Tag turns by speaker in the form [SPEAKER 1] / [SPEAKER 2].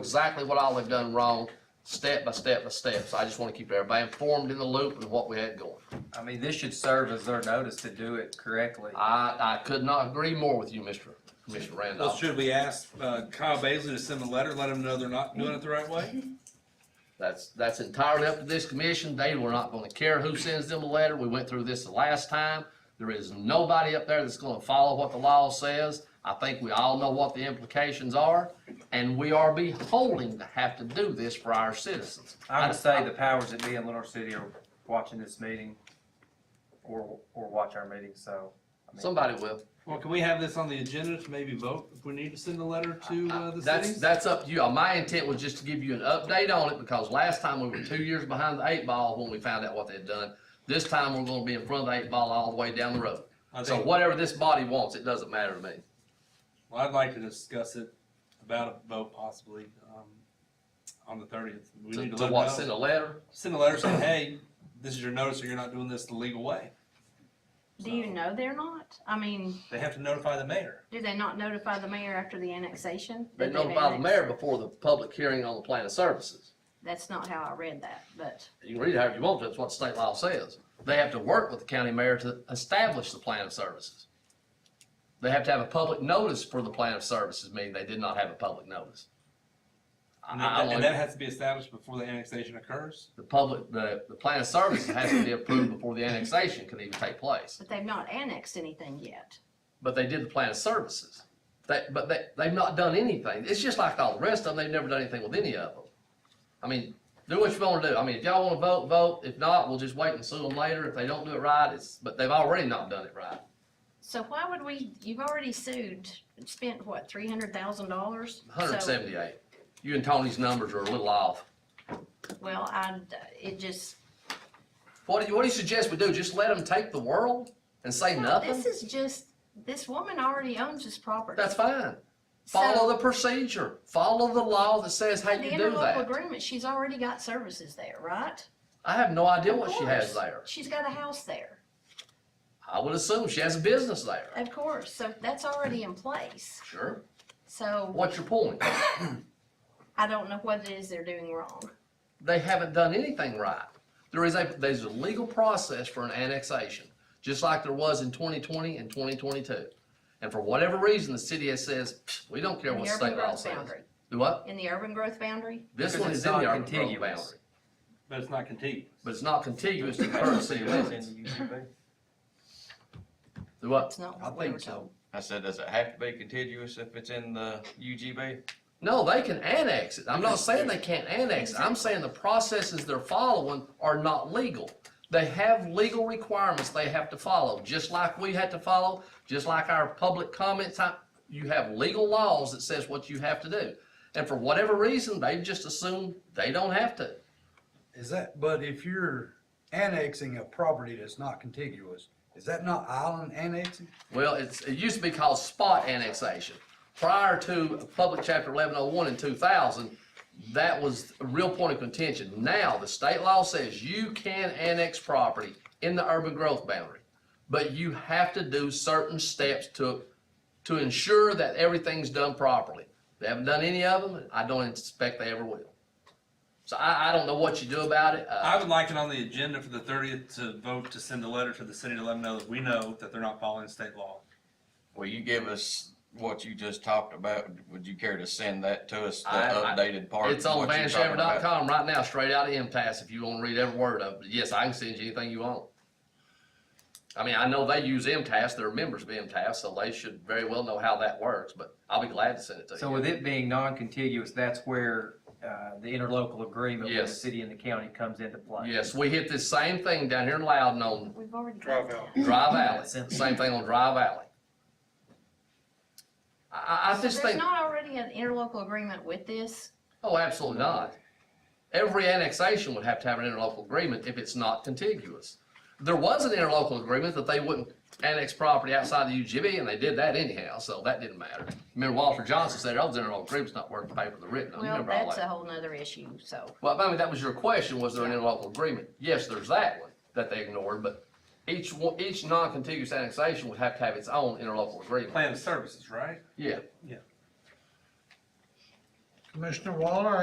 [SPEAKER 1] exactly what all they've done wrong, step by step by step. So I just want to keep everybody informed in the loop and what we had going.
[SPEAKER 2] I mean, this should serve as their notice to do it correctly.
[SPEAKER 1] I, I could not agree more with you, Mr. Commissioner
[SPEAKER 3] Well,
[SPEAKER 1] Randolph.
[SPEAKER 3] should we ask uh, Kyle Basley to send a letter, let him know they're not doing it the right way?
[SPEAKER 1] That's, that's entirely up to this commission. They were not going to care who sends them a letter. We went through this the last time. There is nobody up there that's going to follow what the law says. I think we all know what the implications are, and we are beholding to have to do this for our citizens.
[SPEAKER 2] I would say the powers that be in Lenore City are watching this meeting or, or watch our meeting, so. I mean,
[SPEAKER 1] Somebody will.
[SPEAKER 3] Well, can we have this on the agenda to maybe vote if we need to send a letter to uh, the
[SPEAKER 1] That's,
[SPEAKER 3] cities?
[SPEAKER 1] that's up to you. Uh, My intent was just to give you an update on it because last time we were two years behind the eight ball when we found out what they'd done. This time we're gonna be in front of the eight ball all the way down the road.
[SPEAKER 3] I
[SPEAKER 1] So
[SPEAKER 3] think,
[SPEAKER 1] whatever this body wants, it doesn't matter to me.
[SPEAKER 3] well, I'd like to discuss it about a vote possibly um, on the thirtieth. We
[SPEAKER 1] To
[SPEAKER 3] need to
[SPEAKER 1] to
[SPEAKER 3] let
[SPEAKER 1] what,
[SPEAKER 3] them
[SPEAKER 1] send a
[SPEAKER 3] know.
[SPEAKER 1] letter?
[SPEAKER 3] Send a letter saying, hey, this is your notice or you're not doing this the legal way.
[SPEAKER 4] Do you know they're not? I mean,
[SPEAKER 3] They have to notify the mayor.
[SPEAKER 4] do they not notify the mayor after the annexation?
[SPEAKER 1] They
[SPEAKER 4] Did
[SPEAKER 1] notify the
[SPEAKER 4] annex-
[SPEAKER 1] mayor before the public hearing on the plan of services.
[SPEAKER 4] That's not how I read that, but
[SPEAKER 1] You can read it however you want to, that's what state law says. They have to work with the county mayor to establish the plan of services. They have to have a public notice for the plan of services, meaning they did not have a public notice. I-
[SPEAKER 3] And
[SPEAKER 1] I
[SPEAKER 3] that,
[SPEAKER 1] don't-
[SPEAKER 3] and that has to be established before the annexation occurs.
[SPEAKER 1] the public, the, the plan of services has to be approved before the annexation can even take place.
[SPEAKER 4] but they've not annexed anything yet.
[SPEAKER 1] But they did the plan of services. They, but they, they've not done anything. It's just like all the rest of them, they've never done anything with any of them. I mean, do what you wanna do. I mean, if y'all wanna vote, vote. If not, we'll just wait and sue them later. If they don't do it right, it's, but they've already not done it right.
[SPEAKER 4] So why would we? You've already sued, spent what three hundred thousand dollars?
[SPEAKER 1] Hundred and seventy-eight. You and Tony's numbers are a little off.
[SPEAKER 4] Well, I it just
[SPEAKER 1] What do you, what do you suggest we do? Just let them take the world and say
[SPEAKER 4] no, This
[SPEAKER 1] nothing?
[SPEAKER 4] is just this woman already owns this property.
[SPEAKER 1] That's fine.
[SPEAKER 4] So,
[SPEAKER 1] Follow the procedure. Follow the law that says how
[SPEAKER 4] the
[SPEAKER 1] you do that.
[SPEAKER 4] interlocal agreement. She's already got services there, right?
[SPEAKER 1] I have no idea
[SPEAKER 4] Of
[SPEAKER 1] what she has
[SPEAKER 4] course.
[SPEAKER 1] there.
[SPEAKER 4] She's got a house there,
[SPEAKER 1] I would assume she has a business there.
[SPEAKER 4] of course. So that's already in place.
[SPEAKER 1] Sure.
[SPEAKER 4] So
[SPEAKER 1] What's your point?
[SPEAKER 4] I don't know what it is they're doing wrong.
[SPEAKER 1] They haven't done anything right. There is a, there's a legal process for an annexation, just like there was in 2020 and 2022. And for whatever reason, the city has says, "Pfft, we don't care
[SPEAKER 4] In
[SPEAKER 1] what
[SPEAKER 4] the urban
[SPEAKER 1] state law
[SPEAKER 4] growth
[SPEAKER 1] says.
[SPEAKER 4] boundary.
[SPEAKER 1] Do what?
[SPEAKER 4] In the urban growth boundary?
[SPEAKER 1] This
[SPEAKER 2] Because
[SPEAKER 1] one
[SPEAKER 2] it's
[SPEAKER 1] is in the
[SPEAKER 2] not
[SPEAKER 1] urban growth
[SPEAKER 2] contiguous.
[SPEAKER 1] boundary,
[SPEAKER 3] But it's not contiguous.
[SPEAKER 1] but it's not contiguous to the current city limits. Do what?
[SPEAKER 4] That's not
[SPEAKER 5] I
[SPEAKER 4] what we
[SPEAKER 5] think
[SPEAKER 4] were
[SPEAKER 5] so.
[SPEAKER 4] told.
[SPEAKER 5] I said, does it have to be contiguous if it's in the UGB?
[SPEAKER 1] No, they can annex it. I'm not saying they can't annex it. I'm saying the processes they're following are not legal. They have legal requirements they have to follow, just like we had to follow, just like our public comments. I- You have legal laws that says what you have to do. And for whatever reason, they just assume they don't have to.
[SPEAKER 6] Is that, but if you're annexing a property that's not contiguous, is that not island annexing?
[SPEAKER 1] Well, it's, it used to be called spot annexation. Prior to Public Chapter eleven oh one in two thousand, that was a real point of contention. Now, the state law says you can annex property in the urban growth boundary, but you have to do certain steps to, to ensure that everything's done properly. They haven't done any of them, and I don't expect they ever will. So I, I don't know what you do about it. Uh,
[SPEAKER 3] I would like it on the agenda for the thirtieth to vote to send a letter to the city to let them know that we know that they're not following state law.
[SPEAKER 5] Will you give us what you just talked about? Would you care to send that to us, the
[SPEAKER 1] I- I-
[SPEAKER 5] updated part?
[SPEAKER 1] It's on
[SPEAKER 5] what you're talking about?
[SPEAKER 1] vanshaver.com right now, straight out of MTS, if you wanna read every word of it. Yes, I can send you anything you want. I mean, I know they use MTS, they're members of MTS, so they should very well know how that works, but I'll be glad to send it to
[SPEAKER 2] So
[SPEAKER 1] you.
[SPEAKER 2] with it being non-contiguous, that's where, uh, the interlocal agreement with the
[SPEAKER 1] Yes.
[SPEAKER 2] city and the county comes into play.
[SPEAKER 1] Yes, we hit this same thing down here in Loudon on
[SPEAKER 4] We've already got that.
[SPEAKER 1] Dry Valley, same thing on Dry Valley. I, I- I
[SPEAKER 4] So
[SPEAKER 1] just
[SPEAKER 4] There's
[SPEAKER 1] think,
[SPEAKER 4] not already an interlocal agreement with this?
[SPEAKER 1] oh, absolutely not. Every annexation would have to have an interlocal agreement if it's not contiguous. there was an interlocal agreement that they wouldn't annex property outside the UGB, and they did that anyhow, so that didn't matter. Remember Walter Johnson said, oh, the interlocal agreement's not worth the paper they're written on, You
[SPEAKER 4] Well,
[SPEAKER 1] remember all
[SPEAKER 4] that's a
[SPEAKER 1] that?
[SPEAKER 4] whole nother issue, so.
[SPEAKER 1] Well, I mean, that was your question, was there an interlocal agreement? Yes, there's that one that they ignored, but each one, each non-contiguous annexation would have to have its own interlocal agreement.
[SPEAKER 3] Plan of services, right?
[SPEAKER 1] Yeah.
[SPEAKER 3] Yeah.
[SPEAKER 6] Commissioner Waller,